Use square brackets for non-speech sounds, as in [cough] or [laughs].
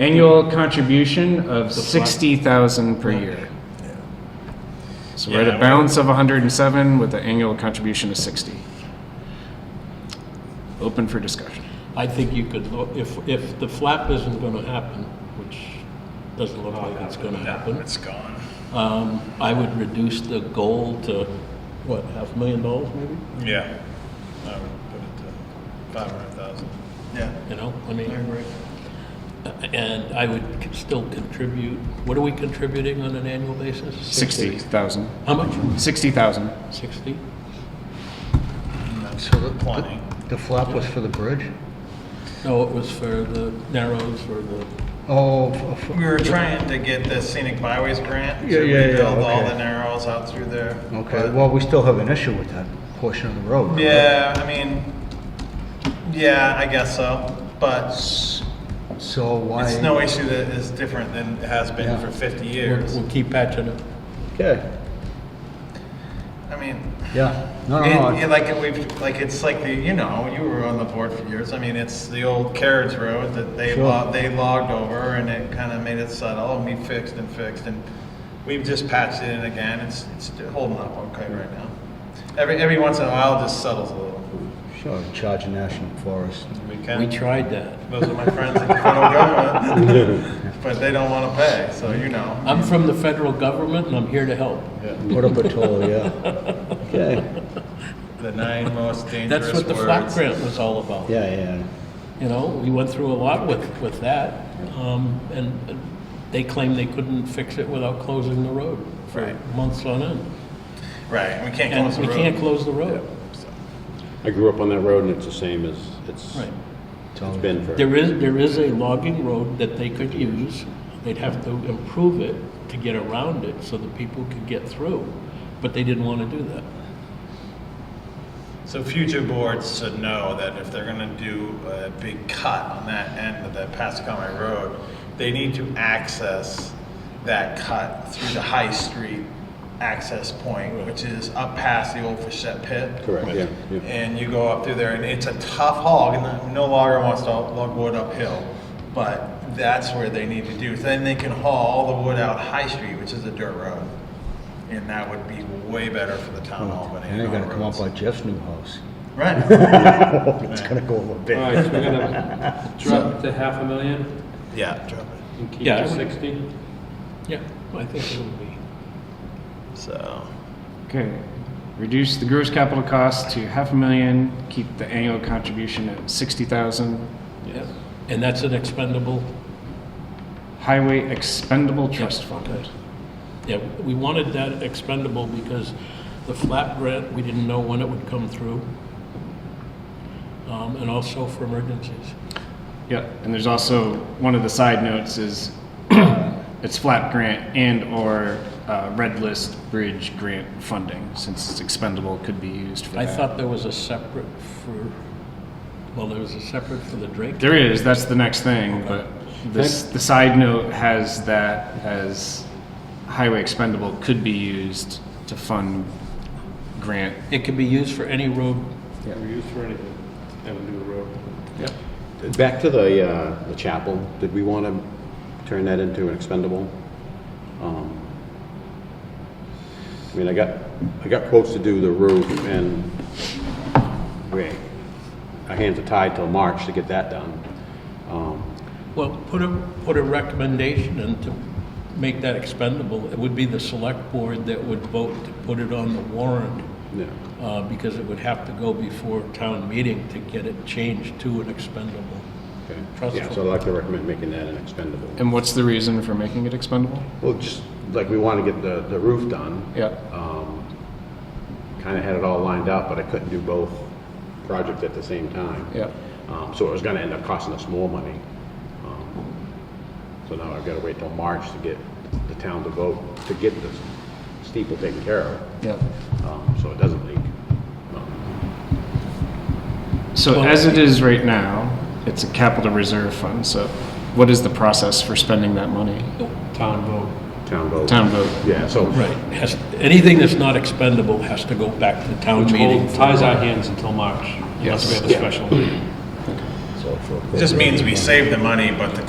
Annual contribution of sixty thousand per year. So we're at Yeah, a we- balance of hundred and seven with an annual contribution of sixty. Open for discussion. I think you could, lo- if, if the flap isn't gonna happen, which doesn't look like it's gonna happen, It's gone. um, I would reduce the goal to, what, half a million dollars maybe? Yeah. I would put it to five hundred thousand. Yeah. You know, I I mean, agree. and I would c- still contribute, what are we contributing on an annual basis? Sixty thousand. How much? Sixty thousand. Sixty? And that's So the- plenty. The flop was for the bridge? No, it was for the narrows or the, Oh, f- We f- were trying to get the scenic byways grant to Yeah, yeah, yeah, rebuild all okay. the narrows out through there. okay, but- well, we still have an issue with that portion of the road. Yeah, I mean, yeah, I guess so, but So why? it's no issue that is different than it has been Yeah. for fifty we'll years. we'll keep patching it. Okay, I mean, yeah, no, It- no, it- no, like we've, like it's like the, you know, you were on the board for years. I mean, it's the old carriage road that they Sure. lo- they logged over, and it kind of made it subtle, and we fixed and fixed, and we've just patched it in again. It's it's holding up okay right now. Every every once in a while, it just settles a little. sure, in charge of National Forest. We We can. tried that. Those are my friends in the federal government, but they don't want to pay, so you know. I'm from the federal government and I'm here to help. Put up a toll, [laughs] yeah. Okay, The nine most dangerous That's what the flap grant was all about. yeah, yeah, You know, we went through a lot with, with that, um, and and they claimed they couldn't fix it without closing the road for Right. months on end. Right, we can't And close we the road. can't close the road. I grew up on that road and it's the same as it's Right. Tell been for. There is, there is a logging road that they could use. They'd have to improve it to get around it so that people could get through, but they didn't want to do that. So future boards should know that if they're gonna do a big cut on that end of the Pascomie Road, they need to access that cut through the High Street access point, which is up past the old Fichette pit. Correct, yeah, yeah. And you go up through there, and it's a tough hog, and no logger wants to lug wood uphill, but that's where they need to do. Then they can haul all the wood out High Street, which is a dirt road, and that would be way better for the town of Albany. And they're and gonna our come up roads. like Jeff's new house. Right. It's gonna go over All big. right, so we're gonna drop to half a million Yeah, drop it. and keep Yeah, I to would- sixty? Yeah, I think it would be. So, Okay. Reduce the gross capital cost to half a million, keep the annual contribution at sixty thousand. Yeah, and that's an expendable. Highway expendable trust fund. Yeah, we wanted that expendable because the flap grant, we didn't know when it would come through. Um, and also for emergencies. Yep, and there's also, one of the side notes is, [coughs] it's flap grant and/or uh, red list bridge grant funding, since it's expendable, could be used for I that. thought there was a separate for, well, there was a separate for the Drake. There is, that's the next thing, but this, the side note has that as highway expendable could be used to fund grant. It can be used for any road. We're used for anything, have a new road. Back to the, uh, the chapel, did we want to turn that into an expendable? Um, I mean, I got, I got quotes to do the roof and we, our hands are tied till March to get that done. Um, Well, put a, put a recommendation in to make that expendable. It would be the select board that would vote to put it on the warrant. Yeah, uh, because it would have to go before town meeting to get it changed to an expendable. okay. Trust Yeah, so I'd fund. like to recommend making that an expendable. And what's the reason for making it expendable? Well, just like we want to get the, the roof done. Yeah. Oh. kind of had it all lined up, but I couldn't do both projects at the same time. Yeah. Um, so it was gonna end up costing us more money. Um, So now I've gotta wait till March to get the town to vote, to get the steeple taken care of, Yeah. um, so it doesn't leak. So as it is right now, it's a capital reserve fund, so what is the process for spending that money? Town vote. Town vote. Town vote. Yeah, so. Right, has, anything that's not expendable has to go back to town Which meeting. hold- ties our hands until March, unless we Yes. have a special meeting. So for- just means we save the money, but the